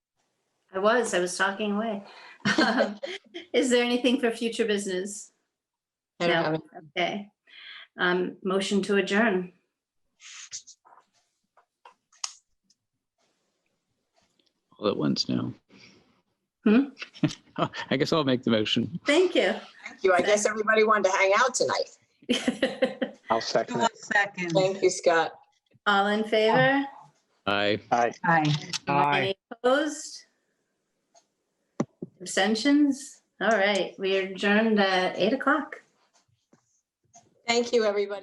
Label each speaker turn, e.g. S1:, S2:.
S1: I was, I was talking away. Um, Is there anything for future business?
S2: I
S1: No.
S2: don't have it.
S1: Okay. Um, motion to adjourn.
S3: all at once now.
S1: Hmm?
S3: I guess I'll make the motion.
S1: Thank you.
S2: Thank Mm-hmm. you. I guess everybody wanted to hang out tonight.
S4: I'll second
S5: One
S4: it.
S5: second.
S2: Thank you, Scott.
S1: All in favor?
S3: Aye.
S4: Aye.
S5: Aye.
S1: Any opposed? Abstentions? All right, we are adjourned at eight o'clock.
S2: Thank you, everybody.